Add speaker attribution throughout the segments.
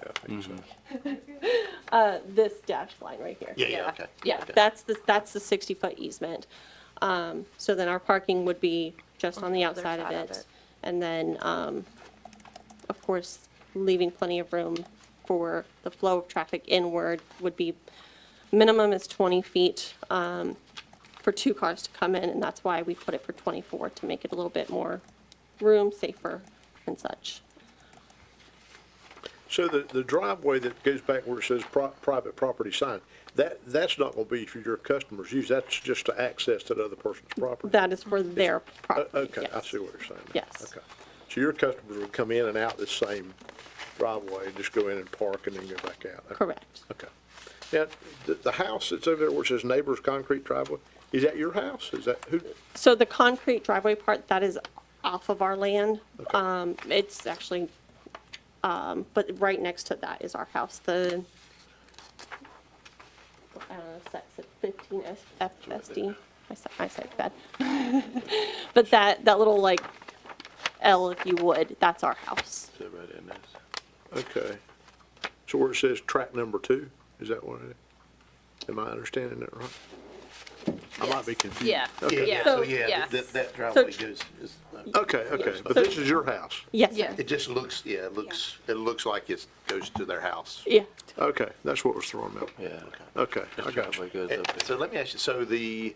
Speaker 1: think
Speaker 2: Mm-hmm.
Speaker 1: so.
Speaker 2: Uh, this dashed line right here.
Speaker 1: Yeah, yeah, okay.
Speaker 2: Yeah,
Speaker 1: Okay.
Speaker 2: that's the, that's the 60-foot easement. Um, So then our parking would be just on the
Speaker 3: other
Speaker 2: outside of
Speaker 3: side of
Speaker 2: it.
Speaker 3: it.
Speaker 2: And then, um, of course, leaving plenty of room for the flow of traffic inward would be, minimum is 20 feet um, for two cars to come in, and that's why we put it for 24, to make it a little bit more room, safer and such.
Speaker 1: So the, the driveway that goes back where it says pri- private property sign, that, that's not gonna be for your customers' use, that's just to access that other person's property?
Speaker 2: That is for their
Speaker 1: Uh,
Speaker 2: property.
Speaker 1: Okay, I
Speaker 2: yes.
Speaker 1: see what you're saying. now.
Speaker 2: Yes.
Speaker 1: Okay. So your customers would come in and out the same driveway, and just go in and park and then go back out? Okay.
Speaker 2: Correct.
Speaker 1: Okay. Now, the, the house that's over there where it says neighbor's concrete driveway, is that your house? Is that, who,
Speaker 2: So the concrete driveway part, that is off of our land. Um, It's actually, um, but right next to that is our house, the, I don't know, that's at 15 S- FSD. I said, I said bad. But that, that little like L, if you would, that's our house.
Speaker 1: okay. So where it says track number two, is that what it is? Am I understanding that right? I might be confused.
Speaker 3: Yeah,
Speaker 1: Okay.
Speaker 3: yeah,
Speaker 2: So-
Speaker 3: yeah.
Speaker 4: Yeah, that, that driveway
Speaker 2: tr-
Speaker 4: goes, is,
Speaker 1: Okay, okay, but this is your house.
Speaker 2: Yes,
Speaker 3: Yeah.
Speaker 2: sir.
Speaker 4: it just looks, yeah, it looks, it looks like it goes to their house.
Speaker 2: Yeah.
Speaker 1: Okay, that's what was thrown out.
Speaker 5: Yeah.
Speaker 1: Okay, I got
Speaker 5: This
Speaker 1: you.
Speaker 5: driveway goes
Speaker 4: And
Speaker 5: up.
Speaker 4: So let me ask you, so the,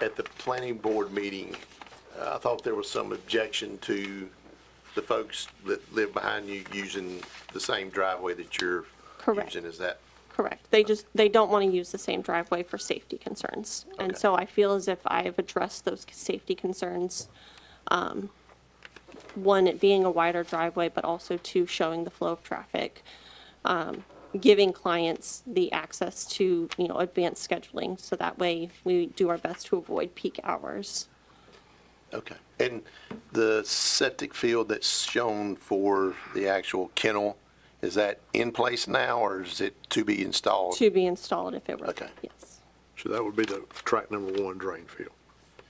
Speaker 4: at the planning board meeting, uh, I thought there was some objection to the folks that live behind you using the same driveway that you're
Speaker 2: Correct.
Speaker 4: using, is that?
Speaker 2: Correct. They just, they don't want to use the same driveway for safety concerns. And
Speaker 4: Okay.
Speaker 2: so I feel as if I've addressed those safety concerns. um, One, it being a wider driveway, but also two, showing the flow of traffic, um, giving clients the access to, you know, advanced scheduling. So that way we do our best to avoid peak hours.
Speaker 4: Okay. And the septic field that's shown for the actual kennel, is that in place now or is it to be installed?
Speaker 2: To be installed if it were.
Speaker 4: Okay.
Speaker 2: Yes.
Speaker 1: So that would be the track number one drain field.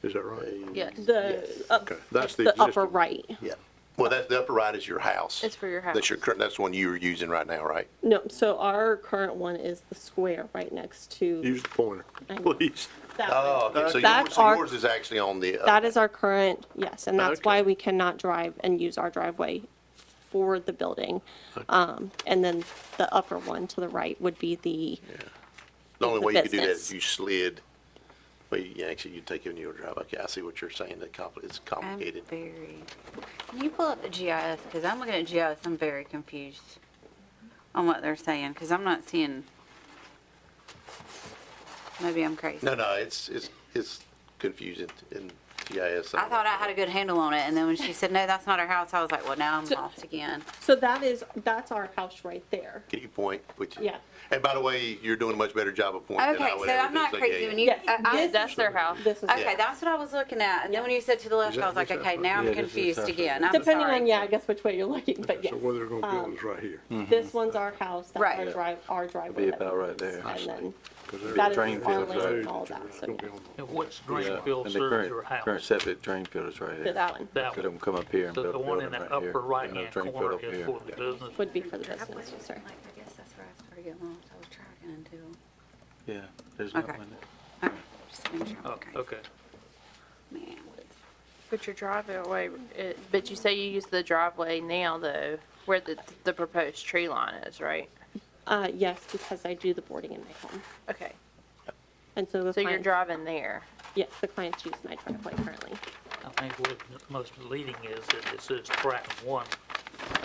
Speaker 1: Is that right?
Speaker 3: Yes.
Speaker 2: The, up-
Speaker 1: Okay, that's the
Speaker 2: the upper
Speaker 1: existing-
Speaker 2: right.
Speaker 4: Yeah. Well, that, the upper right is your house.
Speaker 3: It's for your
Speaker 4: That's your
Speaker 3: house.
Speaker 4: current, that's the one you are using right now, right?
Speaker 2: No, so our current one is the square right next to.
Speaker 1: Use the pointer,
Speaker 2: I know.
Speaker 1: please.
Speaker 2: that one.
Speaker 4: Oh, okay. So
Speaker 2: That's
Speaker 4: yours, so
Speaker 2: our-
Speaker 4: yours is actually on the. uh,
Speaker 2: That is our current, yes, and that's why
Speaker 1: Okay.
Speaker 2: we cannot drive and use our driveway for the building. Um, And then the upper one to the right would be the,
Speaker 4: The only
Speaker 2: the
Speaker 4: way you could do that
Speaker 2: business.
Speaker 4: is you slid, well, you actually, you take it in your drive. Okay, I see what you're saying. That compli, it's
Speaker 6: I'm
Speaker 4: complicated.
Speaker 6: very. Can you pull up the GIS? Because I'm looking at GIS, I'm very confused on what they're saying, because I'm not seeing. Maybe I'm crazy.
Speaker 4: No, no, it's, it's, it's confusing in GIS.
Speaker 6: I thought I had a good handle on it, and then when she said, no, that's not her house, I was like, well, now I'm lost again.
Speaker 2: so that is, that's our house right there.
Speaker 4: Can you point, which?
Speaker 2: Yeah.
Speaker 4: And by the way, you're doing a much better job of pointing than
Speaker 6: Okay,
Speaker 4: I would
Speaker 6: so
Speaker 4: ever
Speaker 6: I'm
Speaker 4: do,
Speaker 6: not
Speaker 4: so yeah,
Speaker 6: crazy
Speaker 4: yeah.
Speaker 6: when you,
Speaker 2: Yes,
Speaker 6: I- I-
Speaker 2: this-
Speaker 6: that's their house.
Speaker 2: This is,
Speaker 6: Okay, that's what I was looking at, and then when you said to the left, I was like,
Speaker 1: Exactly.
Speaker 6: okay, now
Speaker 5: Yeah,
Speaker 6: I'm
Speaker 5: this is
Speaker 6: confused
Speaker 5: actually-
Speaker 6: again, I'm
Speaker 2: depending on,
Speaker 6: sorry.
Speaker 2: yeah, I guess which way you're looking, but yes. Um,
Speaker 1: So where they're gonna build is right here.
Speaker 5: Hmm.
Speaker 2: This one's our house, that's our
Speaker 6: Right.
Speaker 2: drive, our driveway.
Speaker 5: Be
Speaker 2: that
Speaker 5: about
Speaker 2: we
Speaker 5: right
Speaker 2: use,
Speaker 5: there. I
Speaker 2: And then
Speaker 1: Because
Speaker 2: that is
Speaker 1: they're-
Speaker 5: drain
Speaker 2: our
Speaker 5: fields,
Speaker 2: land and
Speaker 5: right.
Speaker 2: all that, so yeah.
Speaker 7: And what's
Speaker 5: Yeah,
Speaker 7: drain field
Speaker 5: and the
Speaker 7: serves
Speaker 5: current-
Speaker 7: your
Speaker 5: Current
Speaker 7: house?
Speaker 5: septic drain field is right
Speaker 2: This
Speaker 5: here.
Speaker 2: one
Speaker 7: That
Speaker 5: Could
Speaker 7: one,
Speaker 5: them come up here and
Speaker 7: the
Speaker 5: build a
Speaker 7: the one
Speaker 5: building
Speaker 7: in
Speaker 5: right
Speaker 7: that
Speaker 5: here.
Speaker 7: upper
Speaker 5: and a
Speaker 7: right-hand
Speaker 5: drain field
Speaker 7: corner
Speaker 5: up
Speaker 7: is
Speaker 5: here.
Speaker 7: for the business.
Speaker 2: would be for the business, yes, sir.
Speaker 6: I guess that's where I started getting lost, I was trying to,
Speaker 5: Yeah, there's not
Speaker 6: Okay.
Speaker 5: one there.
Speaker 6: just making sure
Speaker 7: Oh,
Speaker 6: I'm crazy.
Speaker 7: okay.
Speaker 6: Man, what's-
Speaker 3: But your driveway, it- but you say you use the driveway now though, where the, the proposed tree line is, right?
Speaker 2: Uh, yes, because I do the boarding in my home.
Speaker 3: Okay,
Speaker 2: And so the
Speaker 3: so you're
Speaker 2: clients,
Speaker 3: driving there.
Speaker 2: yes, the clients use my driveway currently.
Speaker 7: I think what's most leading is that it says track one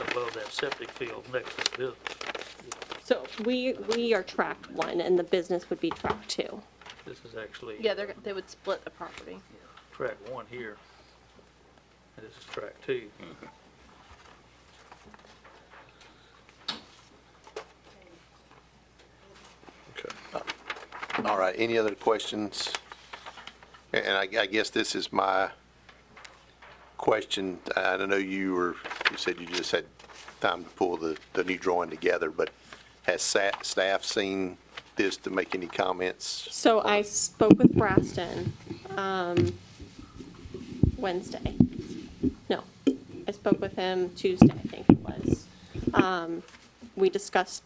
Speaker 7: above that septic field next to the business.
Speaker 2: So we, we are tracked one, and the business would be tracked two.
Speaker 7: This is actually
Speaker 3: Yeah, they're, they would split the property.
Speaker 7: track one here. And this is track two.
Speaker 1: Okay.
Speaker 4: All right, any other questions? And I, I guess this is my question. I don't know you were, you said you just had time to pull the, the new drawing together, but has sa- staff seen this to make any comments?
Speaker 2: So I spoke with Braston um, Wednesday. No, I spoke with him Tuesday, I think it was. Um, we discussed